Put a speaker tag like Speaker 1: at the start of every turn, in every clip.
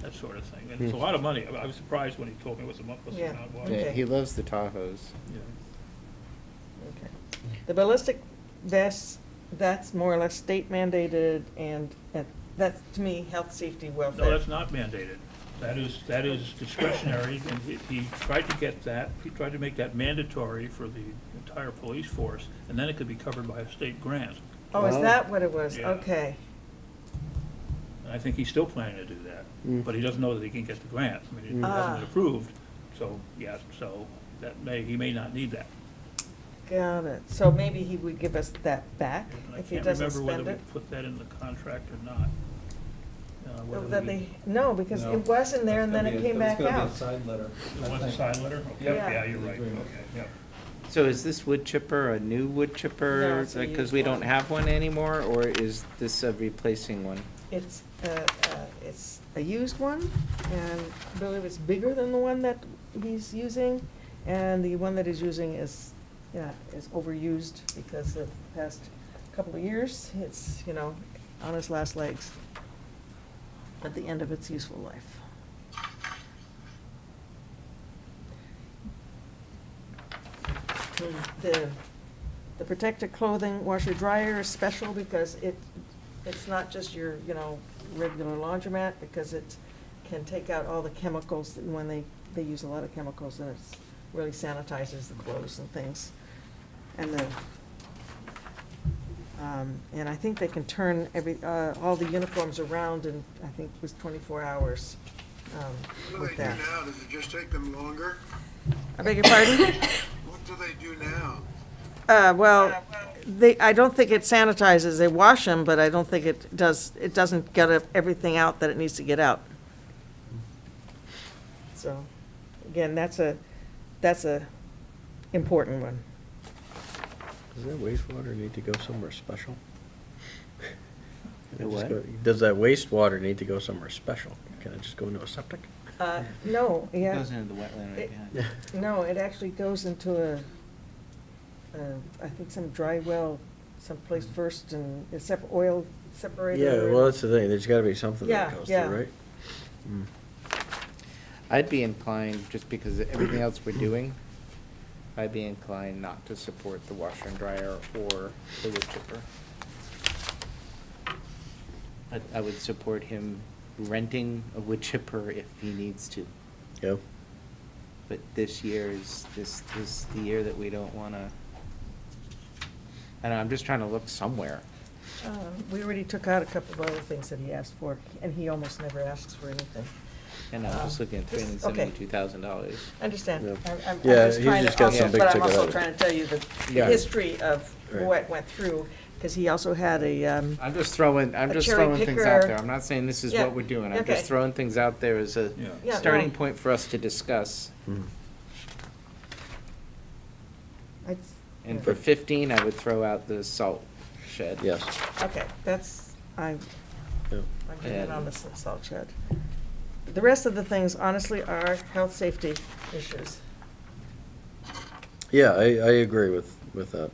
Speaker 1: that sort of thing. And it's a lot of money. I I was surprised when he told me what the month was
Speaker 2: Yeah.
Speaker 1: amount was.
Speaker 2: Okay.
Speaker 1: Yeah.
Speaker 3: Yeah, he loves the Tahoes.
Speaker 2: Okay. The ballistic vests, that's more or less state mandated and, and that's to me, health, safety,
Speaker 1: No,
Speaker 2: welfare.
Speaker 1: that's not mandated. That is, that is discretionary, and he- he tried to get that, he tried to make that mandatory for the entire police force, and then it could be covered by a state grant.
Speaker 2: Oh, is
Speaker 3: Oh.
Speaker 2: that what it was?
Speaker 1: Yeah.
Speaker 2: Okay.
Speaker 1: And I think he's still planning to do that,
Speaker 3: Mm.
Speaker 1: but he doesn't know that he can get the grant. I mean, it
Speaker 3: Mm.
Speaker 2: Ah.
Speaker 1: hasn't been approved, so, yes, so that may, he may not need that.
Speaker 2: Got it. So maybe he would give us that back
Speaker 1: And I
Speaker 2: if he
Speaker 1: can't
Speaker 2: doesn't
Speaker 1: remember
Speaker 2: spend
Speaker 1: whether we
Speaker 2: it?
Speaker 1: put that in the contract or not. Uh,
Speaker 2: Oh,
Speaker 1: whether
Speaker 2: That
Speaker 1: we-
Speaker 2: they, no, because
Speaker 4: No.
Speaker 2: it was in there and then it came back out.
Speaker 4: It's gonna be a side letter. I
Speaker 1: It was a
Speaker 4: think.
Speaker 1: side letter? Okay,
Speaker 2: Yep.
Speaker 1: yeah, you're right, okay,
Speaker 4: Agreement.
Speaker 1: yep.
Speaker 3: So is this wood chipper a new wood
Speaker 2: No,
Speaker 3: chipper?
Speaker 2: it's a
Speaker 3: Because
Speaker 2: used
Speaker 3: we
Speaker 2: one.
Speaker 3: don't have one anymore, or is this a replacing one?
Speaker 2: It's, uh, uh, it's a used one, and I believe it's bigger than the one that he's using, and the one that he's using is, yeah, is overused because of the past couple of years, it's, you know, on its last legs, at the end of its useful life. The, the protective clothing washer dryer is special because it, it's not just your, you know, regular laundromat, because it can take out all the chemicals, that- when they, they use a lot of chemicals, and it's really sanitizes the clothes and things. And the, um, and I think they can turn every, uh, all the uniforms around in, I think it was twenty-four hours, um,
Speaker 5: What do
Speaker 2: with
Speaker 5: they do
Speaker 2: that.
Speaker 5: now? Does it just take them longer?
Speaker 2: I beg your pardon?
Speaker 5: What do they do now?
Speaker 2: Uh, well, they, I don't think it sanitizes, they wash them, but I don't think it does, it doesn't get e- everything out that it needs to get out. So, again, that's a, that's a important one.
Speaker 6: Does that wastewater need to go somewhere special? Can
Speaker 3: The
Speaker 6: it just
Speaker 3: what?
Speaker 6: go- Does that wastewater need to go somewhere special? Can it just go into a septic?
Speaker 2: Uh, no,
Speaker 3: It
Speaker 2: yeah,
Speaker 3: Goes into the wetland right
Speaker 2: It-
Speaker 3: behind.
Speaker 6: Yeah.
Speaker 2: no, it actually goes into a, a- I think some dry well someplace first and, except oil separator.
Speaker 6: Yeah, well, that's the thing, there's gotta be something
Speaker 2: Yeah,
Speaker 6: that goes
Speaker 2: yeah.
Speaker 6: through, right? Mm.
Speaker 3: I'd be inclined, just because of everything else we're doing, I'd be inclined not to support the washer and dryer or the wood chipper. I, I would support him renting a wood chipper if he needs to.
Speaker 6: Yeah,
Speaker 3: But this year is, this, this is the year that we don't wanna, I don't know, I'm just trying to look somewhere.
Speaker 2: Uh, We already took out a couple of other things that he asked for, and he almost never asks for anything.
Speaker 3: And I'm just
Speaker 2: Uh,
Speaker 3: looking at three
Speaker 2: this-
Speaker 3: hundred and
Speaker 2: okay.
Speaker 3: seventy-two thousand dollars.
Speaker 2: Understand.
Speaker 6: Yeah.
Speaker 2: I'm- I'm- I'm
Speaker 6: Yeah,
Speaker 2: just
Speaker 6: he's
Speaker 2: trying to
Speaker 6: just got
Speaker 2: also-
Speaker 6: some big
Speaker 2: But I'm
Speaker 6: ticket
Speaker 2: also
Speaker 6: items.
Speaker 2: trying to tell you the the
Speaker 3: Yeah.
Speaker 2: history of
Speaker 6: Right.
Speaker 2: what went through, because he also had a, um,
Speaker 3: I'm just throwing, I'm
Speaker 2: A
Speaker 3: just
Speaker 2: cherry
Speaker 3: throwing things out
Speaker 2: picker.
Speaker 3: there. I'm not saying this is
Speaker 2: Yeah,
Speaker 3: what we're doing. I'm
Speaker 2: okay.
Speaker 3: just throwing things out there as a
Speaker 1: Yeah.
Speaker 2: Yeah,
Speaker 3: starting
Speaker 2: no.
Speaker 3: point for us to discuss.
Speaker 6: Mm.
Speaker 2: I-
Speaker 3: And for fifteen, I would throw out the salt shed.
Speaker 6: yes,
Speaker 2: okay, that's, I'm,
Speaker 6: yeah.
Speaker 2: I'm getting
Speaker 3: And-
Speaker 2: on this salt shed. The rest of the things honestly are health, safety issues.
Speaker 6: Yeah, I, I agree with, with that.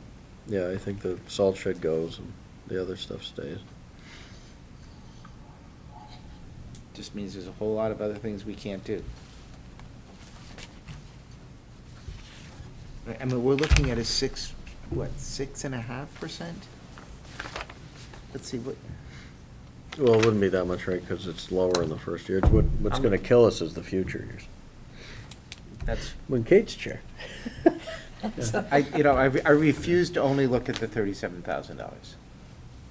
Speaker 6: Yeah, I think the salt shed goes and the other stuff stays.
Speaker 3: Just means there's a whole lot of other things we can't do. I- I mean, we're looking at a six, what, six and a half percent? Let's see, what,
Speaker 6: Well, it wouldn't be that much, right, cause it's lower in the first year. It's what, what's
Speaker 3: I'm-
Speaker 6: gonna kill us is the future years.
Speaker 3: that's,
Speaker 6: When Kate's chair.
Speaker 3: I, you know, I, re- I refuse to only look at the thirty-seven thousand dollars.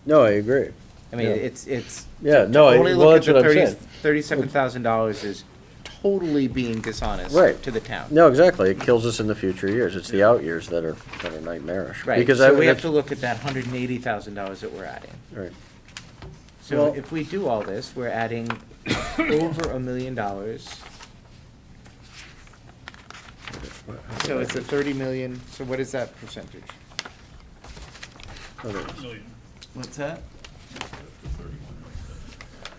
Speaker 6: No, I agree.
Speaker 3: I mean,
Speaker 6: Yeah.
Speaker 3: it's, it's.
Speaker 6: Yeah,
Speaker 3: to- to
Speaker 6: no, I-
Speaker 3: only
Speaker 6: well,
Speaker 3: look at
Speaker 6: that's
Speaker 3: the
Speaker 6: what I'm
Speaker 3: 30
Speaker 6: saying.
Speaker 3: $37,000 is totally being dishonest
Speaker 6: Right.
Speaker 3: to the town.
Speaker 6: No, exactly. It kills us in the future years. It's the out years that are, that are nightmarish.
Speaker 3: Right,
Speaker 6: Because I
Speaker 3: so
Speaker 6: would
Speaker 3: we have to look at that $180,000 that we're adding.
Speaker 6: Right.
Speaker 3: So
Speaker 6: Well-
Speaker 3: if we do all this, we're adding over a million dollars. So it's a 30 million, so what is that percentage?
Speaker 6: Okay.
Speaker 1: Million.
Speaker 3: What's that?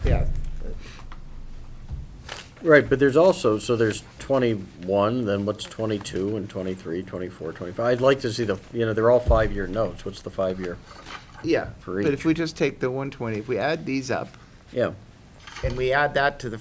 Speaker 3: Yeah,
Speaker 6: Right, but there's also, so there's twenty-one, then what's twenty-two and 23, 24, 25. twenty-five? I'd like to see the, you know, they're all five-year notes. What's the five-year?
Speaker 3: yeah,
Speaker 6: For
Speaker 3: but if
Speaker 6: each.
Speaker 3: we just take the 120, if we add these up
Speaker 6: Yeah.
Speaker 3: and we add that to the